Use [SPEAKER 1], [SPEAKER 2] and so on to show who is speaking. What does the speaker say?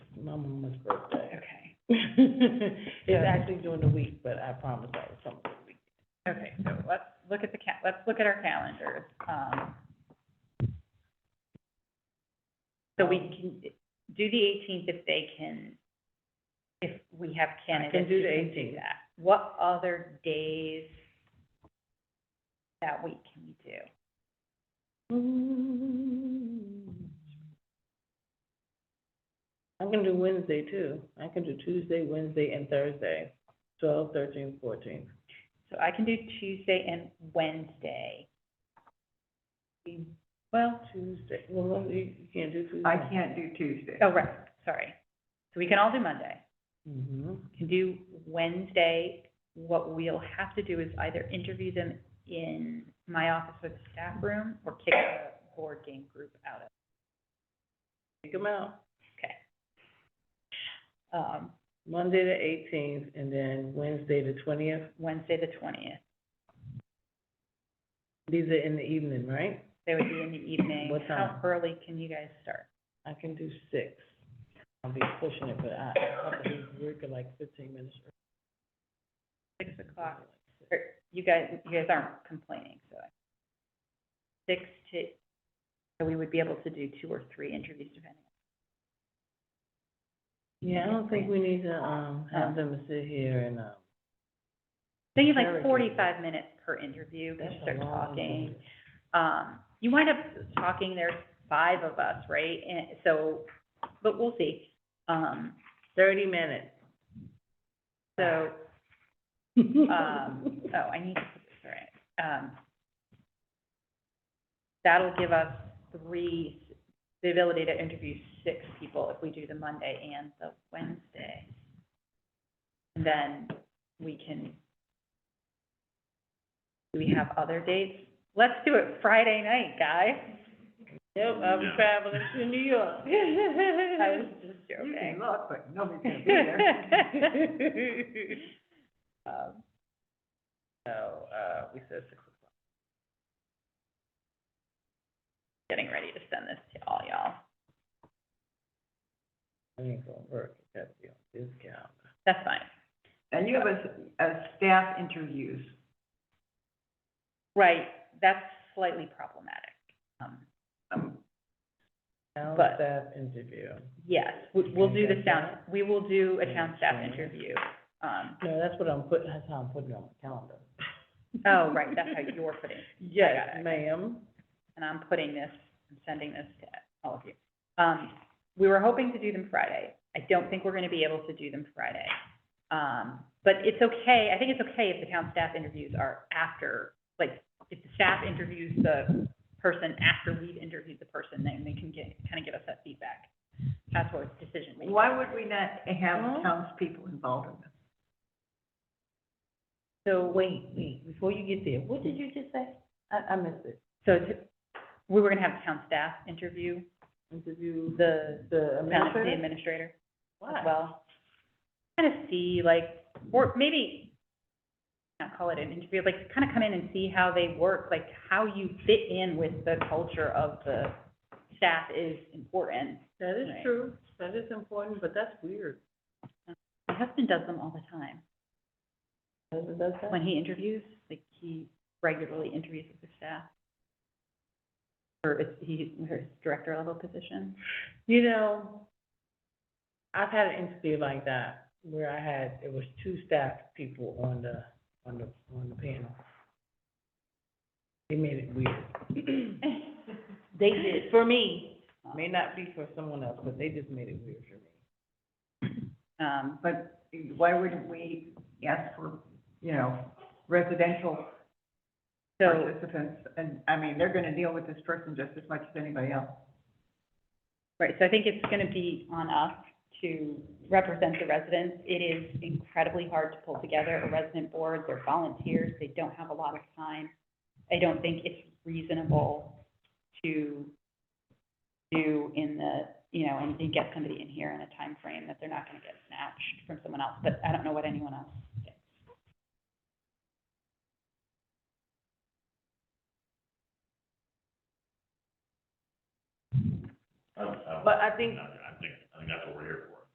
[SPEAKER 1] my mama's birthday.
[SPEAKER 2] Okay,
[SPEAKER 1] It's actually during the week, but I promise I was something.
[SPEAKER 2] okay, so let's look at the ca- let's look at our calendars, um. So we can do the eighteenth if they can, if we have candidates.
[SPEAKER 1] do
[SPEAKER 2] who
[SPEAKER 1] the
[SPEAKER 2] do
[SPEAKER 1] 18th.
[SPEAKER 2] that. What other days that week can we do?
[SPEAKER 3] Mm-hmm.
[SPEAKER 1] I can do Wednesday too. I can do Tuesday, Wednesday, and Thursday, twelve, thirteen, fourteen.
[SPEAKER 2] So I can do Tuesday and Wednesday. We- Well,
[SPEAKER 1] Tuesday, well, you you can't do Tuesday.
[SPEAKER 3] I can't do Tuesday.
[SPEAKER 2] oh, right, sorry. So we can all do Monday.
[SPEAKER 1] Mm-hmm.
[SPEAKER 2] can do Wednesday. What we'll have to do is either interview them in my office or the staff room or kick the board game group out of.
[SPEAKER 1] Take them out.
[SPEAKER 2] Um,
[SPEAKER 1] Monday the eighteenth and then Wednesday the twentieth.
[SPEAKER 2] Wednesday, the twentieth.
[SPEAKER 1] These are in the evening, right?
[SPEAKER 2] They would be in the evening.
[SPEAKER 1] What
[SPEAKER 2] How
[SPEAKER 1] time?
[SPEAKER 2] early can you guys start?
[SPEAKER 1] I can do six. I'll be pushing it, but I, I'll be working like fifteen minutes. early.
[SPEAKER 2] Six o'clock. Or You guys, you guys aren't complaining, so. I- Six to, so we would be able to do two or three interviews depending.
[SPEAKER 1] Yeah, I don't think we need to, um, have them sit here and, um.
[SPEAKER 2] They need like
[SPEAKER 1] Very good.
[SPEAKER 2] forty-five minutes per interview, because
[SPEAKER 1] that's a
[SPEAKER 2] you start
[SPEAKER 1] long
[SPEAKER 2] talking.
[SPEAKER 1] day.
[SPEAKER 2] um, you wind up talking, there's five of us, right? And so, but we'll see. Um,
[SPEAKER 1] Thirty minutes.
[SPEAKER 2] so, um, oh, I need to put this right. Um, that'll give us three, the ability to interview six people if we do the Monday and the Wednesday. And then we can, do we have other dates? Let's do it Friday night, guys.
[SPEAKER 1] Yep, I'm traveling to New York.
[SPEAKER 2] I was just
[SPEAKER 3] You can
[SPEAKER 2] joking.
[SPEAKER 3] look, but nobody's gonna be there.
[SPEAKER 2] Um,
[SPEAKER 1] So, uh, we said six o'clock.
[SPEAKER 2] Getting ready to send this to all y'all.
[SPEAKER 1] I ain't gonna work, it gotta be on this calendar.
[SPEAKER 2] That's fine.
[SPEAKER 3] And you have a, s- a staff interviews.
[SPEAKER 2] Right, that's slightly problematic. Um,
[SPEAKER 3] Um,
[SPEAKER 1] Town
[SPEAKER 2] But-
[SPEAKER 1] staff interview.
[SPEAKER 2] Yes, we- we'll do the
[SPEAKER 1] Okay.
[SPEAKER 2] sound, we will do a town staff
[SPEAKER 1] Okay.
[SPEAKER 2] interview. Um,
[SPEAKER 1] No, that's what I'm putting, that's how I'm putting it on my calendar.
[SPEAKER 2] oh, right, that's how you're putting, it. got
[SPEAKER 1] Yes,
[SPEAKER 2] it.
[SPEAKER 1] ma'am.
[SPEAKER 2] and I'm putting this, I'm sending this to all of you. Um, we were hoping to do them Friday. I don't think we're gonna be able to do them Friday. Um, but it's okay, I think it's okay if the town staff interviews are after, like, if the staff interviews the person after we've interviewed the person, then they can get, kind of give us that feedback. That's what decision making.
[SPEAKER 3] Why would we not
[SPEAKER 1] Well-
[SPEAKER 3] have townspeople involved in this?
[SPEAKER 1] So wait, wait, before you get there, what did you just say? I, I missed it.
[SPEAKER 2] So to, we were gonna have town staff interview
[SPEAKER 1] Interview
[SPEAKER 2] the,
[SPEAKER 1] the
[SPEAKER 2] town- the
[SPEAKER 1] administrator?
[SPEAKER 2] administrator as
[SPEAKER 1] Why?
[SPEAKER 2] well. Kind of see like, or maybe, not call it an interview, like kind of come in and see how they work, like how you fit in with the culture of the staff is important.
[SPEAKER 1] That is
[SPEAKER 2] Right.
[SPEAKER 1] true, that is important, but that's weird.
[SPEAKER 2] My husband does them all the time.
[SPEAKER 1] Does it, does that?
[SPEAKER 2] When he interviews, like he regularly interviews with the staff. Or it's, he, or his director level position.
[SPEAKER 1] You know, I've had an interview like that where I had, it was two staff people on the, on the, on the panel. They made it weird. They did, for me, may not be for someone else, but they just made it weird for me.
[SPEAKER 2] Um,
[SPEAKER 3] But why wouldn't we ask for, you know, residential
[SPEAKER 2] so.
[SPEAKER 3] participants? And, I mean, they're gonna deal with this person just as much as anybody else.
[SPEAKER 2] Right, so I think it's gonna be on us to represent the residents. It is incredibly hard to pull together a resident board, they're volunteers, they don't have a lot of time. I don't think it's reasonable to do in the, you know, and, and get somebody in here in a time frame that they're not gonna get snatched from someone else, but I don't know what anyone else gets.
[SPEAKER 4] I don't, I don't.
[SPEAKER 1] But I think-
[SPEAKER 4] I think, I think that's what we're here